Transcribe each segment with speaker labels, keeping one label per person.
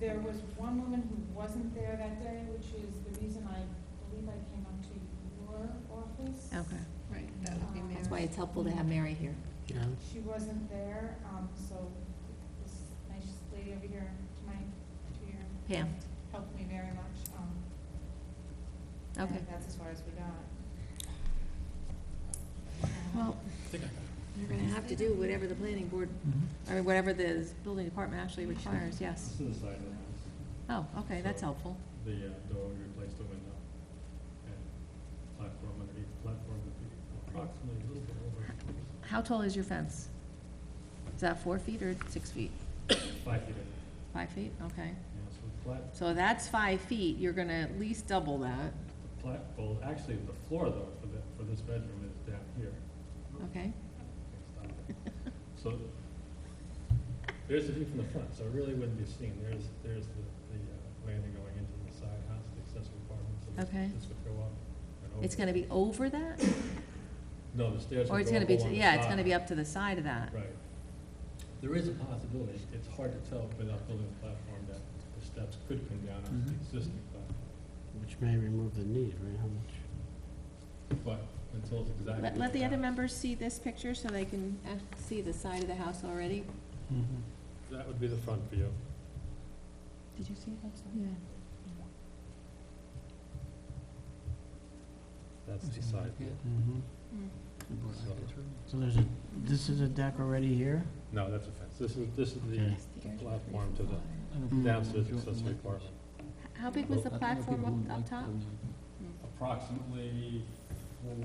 Speaker 1: There was one woman who wasn't there that day, which is the reason I believe I came up to your office.
Speaker 2: Okay,
Speaker 3: Right, that would be
Speaker 2: that's why
Speaker 3: Mary.
Speaker 2: it's helpful to have Mary here.
Speaker 4: Yeah,
Speaker 1: She wasn't there, um, so this nice lady over here, to my, to your.
Speaker 2: Pam.
Speaker 1: Helped me very much, um. and
Speaker 2: Okay.
Speaker 1: That's as far as we got.
Speaker 2: Well, you're gonna have to do whatever the planning board, I mean, whatever the building department actually requires, yes.
Speaker 5: It's to the side of the house.
Speaker 2: Oh, okay, that's helpful.
Speaker 5: The uh, door would replace the window. And platform underneath, the platform would be approximately a little bit over
Speaker 2: How tall is your fence? Is that four feet or six feet?
Speaker 5: five feet.
Speaker 2: Five feet, okay.
Speaker 5: Yeah, so the plat,
Speaker 2: So that's five feet, you're gonna at least double that,
Speaker 5: the plat, well, actually, the floor though, for the, for this bedroom is down here.
Speaker 2: okay?
Speaker 5: So there's the view from the front, so it really wouldn't be seen. There's, there's the, the uh, landing going into the side house, the accessory apartment, so this-
Speaker 2: Okay.
Speaker 5: this would go up and over.
Speaker 2: It's gonna be over that?
Speaker 5: No, the stairs
Speaker 2: Or it's
Speaker 5: would go
Speaker 2: gonna
Speaker 5: up
Speaker 2: be,
Speaker 5: along the
Speaker 2: yeah, it's
Speaker 5: side.
Speaker 2: gonna be up to the side of that?
Speaker 5: Right. There is a possibility, it's- it's hard to tell without building a platform that the steps could come down
Speaker 2: Mm-hmm.
Speaker 5: on the
Speaker 4: Mhm.
Speaker 5: existing platform.
Speaker 4: which may remove the need, right, how much?
Speaker 5: But until it's exactly.
Speaker 2: Let, let the
Speaker 5: that-
Speaker 2: other members see this picture so they can uh, see the side of the house already.
Speaker 5: That would be the front view.
Speaker 2: Did you see that? Yeah.
Speaker 5: That's the side view.
Speaker 4: Mhm. So there's a, this is a deck already here?
Speaker 5: No, that's a fence. This is, this is the platform to the
Speaker 2: Mm-hmm.
Speaker 5: downstairs accessory apartment.
Speaker 2: How big was the platform up, up top?
Speaker 5: Approximately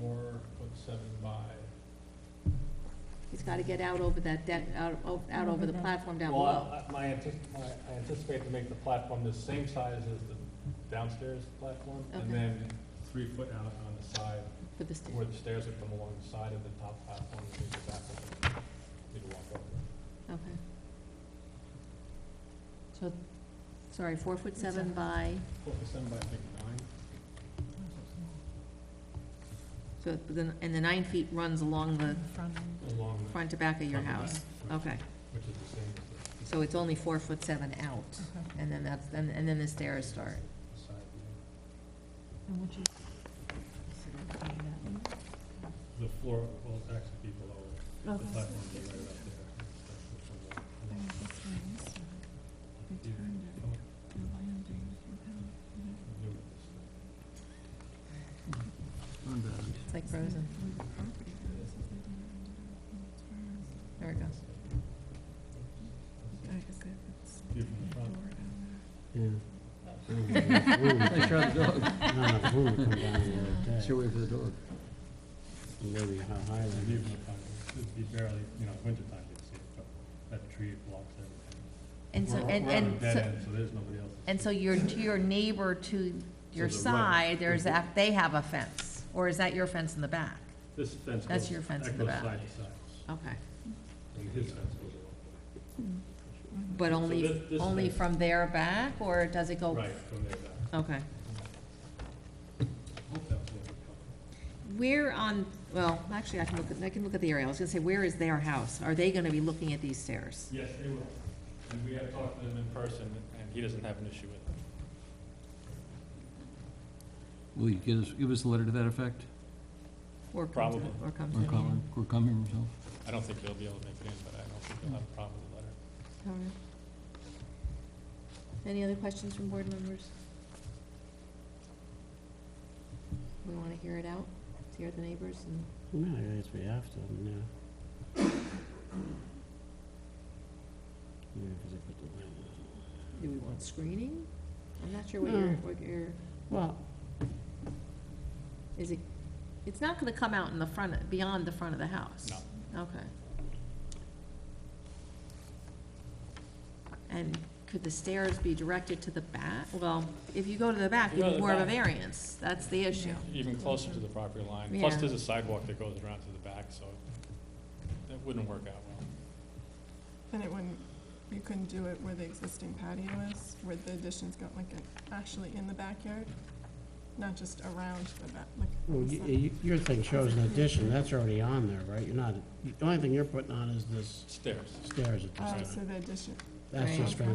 Speaker 5: four foot seven by.
Speaker 2: He's gotta get out over that deck, out, o- out over the platform down
Speaker 5: Well,
Speaker 2: below.
Speaker 5: I- I- my, antici- my- I anticipate to make the platform the same size as the downstairs platform, and
Speaker 2: Okay.
Speaker 5: then three foot out on the side,
Speaker 2: For the stair,
Speaker 5: where the stairs would come along the side of the top platform, and the back of it, you'd walk over.
Speaker 2: okay. So, sorry, four foot seven by,
Speaker 5: Four foot seven by, I think, nine.
Speaker 2: so, the- and the nine feet runs along the
Speaker 5: Along the
Speaker 2: front to back of your
Speaker 5: front and
Speaker 2: house?
Speaker 5: back,
Speaker 2: Okay,
Speaker 5: Which which is the same as
Speaker 2: so it's only four foot seven out, and then that's, and, and then the stairs start.
Speaker 5: the side view. The floor will actually be below it. The platform will be right up there. You- you- you do it this way.
Speaker 2: It's like frozen. There it goes.
Speaker 5: View from the front.
Speaker 4: Yeah. I shot the dog. Not enough room to come down the other deck. Should wait for the dog. Maybe how high
Speaker 5: The
Speaker 4: that
Speaker 5: view
Speaker 4: is.
Speaker 5: from the front, it'd be barely, you know, wintertime you'd see it, but that tree blocks everything.
Speaker 2: And so,
Speaker 5: We're-
Speaker 2: and,
Speaker 5: we're on a
Speaker 2: and,
Speaker 5: dead
Speaker 2: so-
Speaker 5: end, So there's nobody else.
Speaker 2: and so your, to your neighbor to your
Speaker 5: To the right. mhm.
Speaker 2: side, there's, a- they have a fence, or is that your fence in the back?
Speaker 5: This fence goes.
Speaker 2: That's your fence
Speaker 5: that
Speaker 2: in the
Speaker 5: goes
Speaker 2: back.
Speaker 5: Side to side,
Speaker 2: Okay,
Speaker 5: and his fence goes along.
Speaker 2: but
Speaker 5: So
Speaker 2: only,
Speaker 5: this- this
Speaker 2: only
Speaker 5: fence-
Speaker 2: from their back, or does it go?
Speaker 5: Right, from there back.
Speaker 2: Okay.
Speaker 5: Hope that was what it was.
Speaker 2: Where on, well, actually, I can look, at I can look at the area, I was gonna say, where is their house? Are they gonna be looking at these stairs?
Speaker 5: Yes, they will. And we have talked to them in person, and he doesn't have an issue with it.
Speaker 6: Will you give us, give us a letter to that effect?
Speaker 2: Or come to the-
Speaker 5: Probably.
Speaker 2: Or come to
Speaker 6: Or
Speaker 2: the
Speaker 6: come,
Speaker 2: meeting?
Speaker 6: or come here yourself?
Speaker 5: I don't think he'll be able to make it in, but I don't think he'll have a problem with the letter.
Speaker 2: All right. Any other questions from board members? We wanna hear it out, hear the neighbors and.
Speaker 4: No, I guess we have to, yeah. Yeah, 'cause I put the light on.
Speaker 2: Do we want screening? I'm not sure what your,
Speaker 4: No.
Speaker 2: what your,
Speaker 4: Well,
Speaker 2: is it, it's not gonna come out in the front, beyond the front of the house? No. Okay. And could the stairs be directed to the back? Well, if you go to the back,
Speaker 5: You go to
Speaker 2: it's
Speaker 5: the
Speaker 2: more of a
Speaker 5: back.
Speaker 2: variance, that's the issue.
Speaker 5: Even closer to the property line, plus
Speaker 2: Yeah.
Speaker 5: there's a sidewalk that goes around to the back, so that wouldn't work out well.
Speaker 3: Then it wouldn't, you couldn't do it where the existing patio is, where the addition's got like a- actually in the backyard, not just around the back, like.
Speaker 4: well,
Speaker 3: on the
Speaker 4: y-
Speaker 3: side.
Speaker 4: y- your thing shows an addition, that's already on there, right? You're not, the only thing you're putting on is this
Speaker 5: Stairs.
Speaker 4: stairs at the
Speaker 3: Oh,
Speaker 4: side.
Speaker 3: so the addition,
Speaker 4: That's just for